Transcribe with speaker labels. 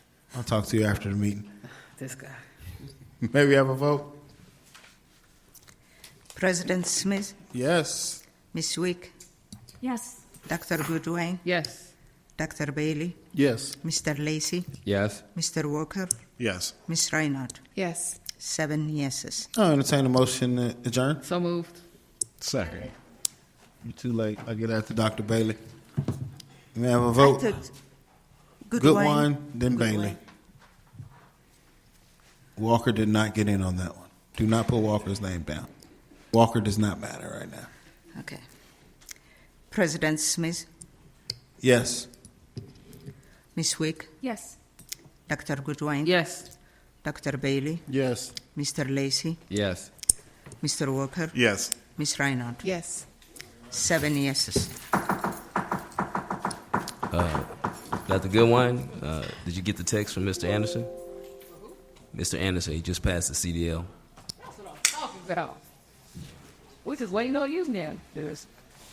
Speaker 1: I'll talk to you after the meeting.
Speaker 2: This guy.
Speaker 1: May we have a vote?
Speaker 3: President Smith,
Speaker 1: Yes.
Speaker 3: Ms. Wick,
Speaker 4: Yes.
Speaker 3: Dr. Goodwin,
Speaker 2: Yes.
Speaker 3: Dr. Bailey,
Speaker 1: Yes.
Speaker 3: Mr. Lacey,
Speaker 5: Yes.
Speaker 3: Mr. Walker,
Speaker 1: Yes.
Speaker 3: Ms. Reinhardt.
Speaker 2: Yes.
Speaker 3: Seven yeses.
Speaker 1: I'll entertain a motion to adjourn.
Speaker 2: So moved.
Speaker 1: Second. You're too late. I'll get after Dr. Bailey. May I have a
Speaker 3: I
Speaker 1: vote?
Speaker 3: took
Speaker 1: Good one, then
Speaker 3: Goodwin.
Speaker 1: Bailey. Walker did not get in on that one. Do not put Walker's name down. Walker does not matter right now.
Speaker 3: Okay. President Smith,
Speaker 1: Yes.
Speaker 3: Ms. Wick,
Speaker 4: Yes.
Speaker 3: Dr. Goodwin,
Speaker 2: Yes.
Speaker 3: Dr. Bailey,
Speaker 1: Yes.
Speaker 3: Mr. Lacey,
Speaker 5: Yes.
Speaker 3: Mr. Walker,
Speaker 1: Yes.
Speaker 3: Ms. Reinhardt.
Speaker 2: Yes.
Speaker 3: Seven yeses.
Speaker 5: That's a good one. Uh, did you get the text from Mr. Anderson? Mr. Anderson, he just passed the CDL.
Speaker 2: That's what I'm talking about. We're just waiting on you now. There's